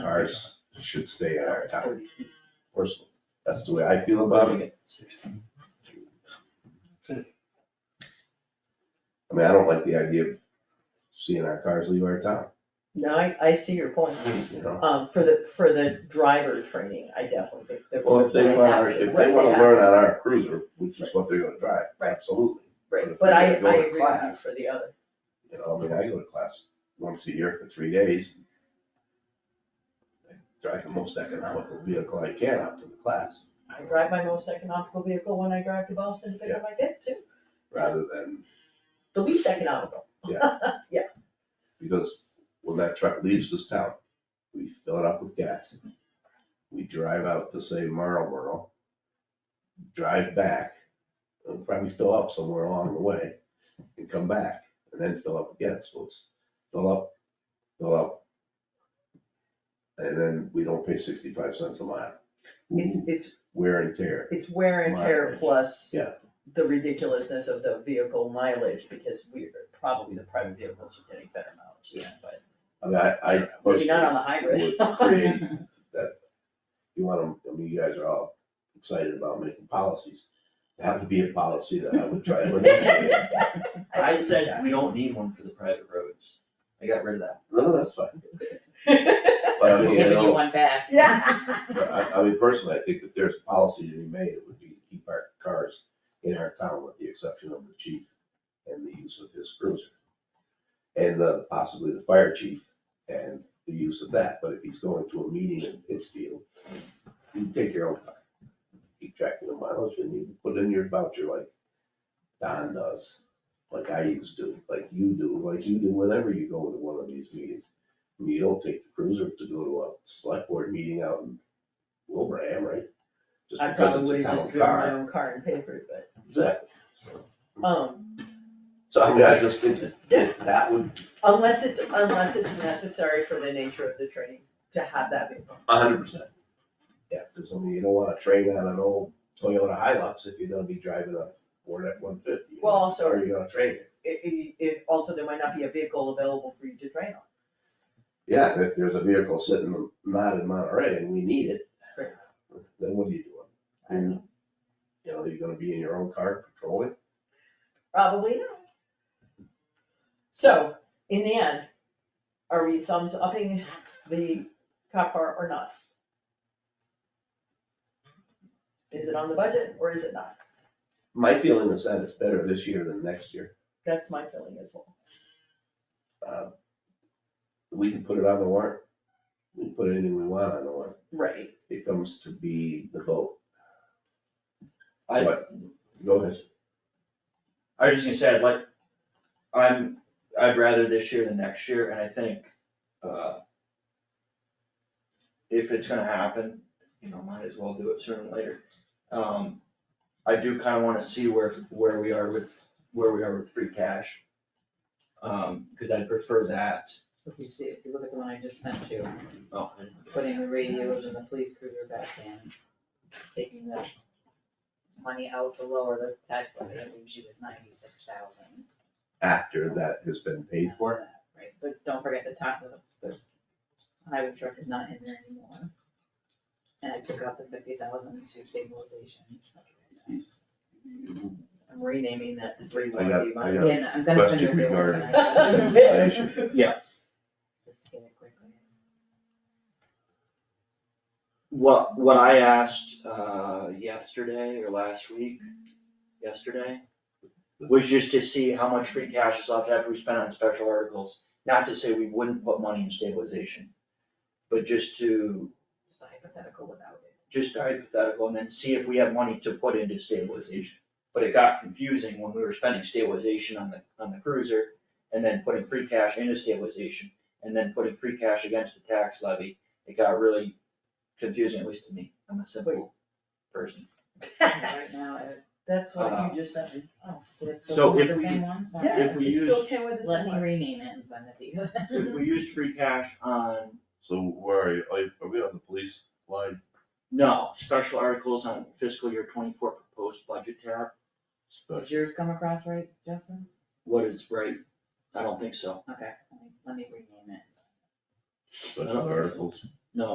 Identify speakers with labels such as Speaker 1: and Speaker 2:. Speaker 1: ours should stay in our town. Personally, that's the way I feel about it. I mean, I don't like the idea of seeing our cars leave our town,
Speaker 2: No, I, I see your point.
Speaker 1: you know?
Speaker 2: Um, for the, for the driver training, I definitely think that.
Speaker 1: Well, if they want, our- if they wanna learn on our cruiser, which is what they're gonna drive,
Speaker 2: Right.
Speaker 1: absolutely.
Speaker 2: Right, but I, I
Speaker 1: if they go to
Speaker 2: agree with you
Speaker 1: class.
Speaker 2: for the other.
Speaker 1: You know, I mean, I go to class once a year for three days. I Drive the most economical vehicle I can out to the class,
Speaker 2: I drive my most economical vehicle when I drive to Boston to pick up my kid too,
Speaker 1: rather than,
Speaker 2: the least economical.
Speaker 1: because when that truck leaves this town, we fill it up with gas. We drive out to say Marlboro, drive back, and probably fill up somewhere along the way, and come back, and then fill up again, so it's fill up, fill up. And then we don't pay sixty-five cents a mile.
Speaker 2: It's, it's,
Speaker 1: wear and tear.
Speaker 2: it's wear and tear
Speaker 1: Mileage.
Speaker 2: plus
Speaker 1: Yeah.
Speaker 2: the ridiculousness of the vehicle mileage, because we're, probably the private vehicles are getting better mileage, yeah, but
Speaker 1: I mean, I, I
Speaker 2: maybe not on
Speaker 1: personally
Speaker 2: the hybrid.
Speaker 1: would create that, you want them, I mean, you guys are all excited about making policies. That would be a policy that I would try to eliminate.
Speaker 3: I said, we don't need one for the private roads. I got rid of that.
Speaker 1: No, that's fine.
Speaker 2: Yeah,
Speaker 1: But I mean, I
Speaker 4: Giving you
Speaker 1: don't,
Speaker 4: one back.
Speaker 1: but I, I mean, personally, I think if there's a policy to be made, it would be to keep our cars in our town with the exception of the chief and the use of his cruiser. And the, possibly the fire chief and the use of that, but if he's going to a meeting in Pittsfield, you take your own car. Keep track of the mileage and you put in your voucher like Don does, like I used to, like you do, like you do whenever you go to one of these meetings. I mean, You don't take the cruiser to go to a select board meeting out in Wilbraham, right? Just
Speaker 2: I
Speaker 1: because
Speaker 2: probably
Speaker 1: it's
Speaker 2: would
Speaker 1: a
Speaker 2: have just
Speaker 1: town
Speaker 2: driven my
Speaker 1: car. Mm.
Speaker 2: own car and paid for it, but,
Speaker 1: Exactly. So-
Speaker 2: um,
Speaker 1: So I mean, I just think that that would
Speaker 2: unless it's, unless it's necessary for the nature of the training to have that vehicle.
Speaker 1: A hundred percent. Yeah, because I mean, you don't wanna train on an old Toyota Hilux if you're gonna be driving a Ford F one fifty.
Speaker 2: Well, also-
Speaker 1: Or you're gonna train it.
Speaker 2: It, it, it, also there might not be a vehicle available for you to train on.
Speaker 1: Yeah, and if there's a vehicle sitting not in Monterey and we need it,
Speaker 2: Right.
Speaker 1: then what are you doing?
Speaker 2: I don't know.
Speaker 1: You know, you're gonna be in your own car patrolling?
Speaker 2: Probably not. So, in the end, are we thumbs upping the cop car or not? Is it on the budget or is it not?
Speaker 1: My feeling is that it's better this year than next year.
Speaker 2: That's my feeling as well.
Speaker 1: Um, We can put it on the warrant. We can put anything we want on the warrant.
Speaker 2: Right.
Speaker 1: It comes to be the vote.
Speaker 3: I-
Speaker 1: But- Go ahead.
Speaker 3: I was just gonna say, I'd like, I'm, I'd rather this year than next year, and I think, uh, if it's gonna happen, you know, might as well do it sooner than later. Um, I do kinda wanna see where, where we are with, where we are with free cash. Um, cause I'd prefer that.
Speaker 4: So if you see, if you look at the one I just sent you,
Speaker 3: Oh.
Speaker 4: putting the radios and the police cruiser back in, taking the money out to lower the tax levy, that leaves you with ninety-six thousand.
Speaker 1: After that has been paid for.
Speaker 4: Right, but don't forget the top of the, the highway truck is not in there anymore. And I took out the fifty thousand to stabilization.
Speaker 2: I'm renaming that the three
Speaker 1: I
Speaker 2: one
Speaker 1: got,
Speaker 2: B
Speaker 1: I
Speaker 2: money.
Speaker 1: got a
Speaker 4: And I'm gonna send you a
Speaker 1: question
Speaker 4: real one
Speaker 1: regarding
Speaker 4: tonight.
Speaker 1: compensation.
Speaker 4: Just to get it quickly.
Speaker 3: What, what I asked, uh, yesterday or last week, yesterday, was just to see how much free cash is left after we spent on special articles. Not to say we wouldn't put money in stabilization, but just to,
Speaker 4: Just a hypothetical without it.
Speaker 3: just hypothetical and then see if we have money to put into stabilization. But it got confusing when we were spending stabilization on the, on the cruiser and then putting free cash into stabilization and then putting free cash against the tax levy. It got really confusing, at least to me. I'm a simple person.
Speaker 4: Right now, it-
Speaker 2: That's what you just said.
Speaker 4: Oh, did it
Speaker 3: Uh, So
Speaker 4: still have
Speaker 3: if
Speaker 4: the
Speaker 3: we-
Speaker 4: same ones? Not
Speaker 2: Yeah,
Speaker 3: If we
Speaker 2: it still
Speaker 3: use-
Speaker 2: came with the
Speaker 4: Let
Speaker 2: same
Speaker 4: me
Speaker 2: one.
Speaker 4: rename it and send it to you.
Speaker 3: If we used free cash on,
Speaker 5: So where are you, are you- are we on the police line?
Speaker 3: no, special articles on fiscal year twenty-four proposed budget tab,
Speaker 5: Special.
Speaker 4: Did yours come across right, Justin?
Speaker 3: what is right? I don't think so.
Speaker 4: Okay, let me- let me rename it.
Speaker 5: Special articles,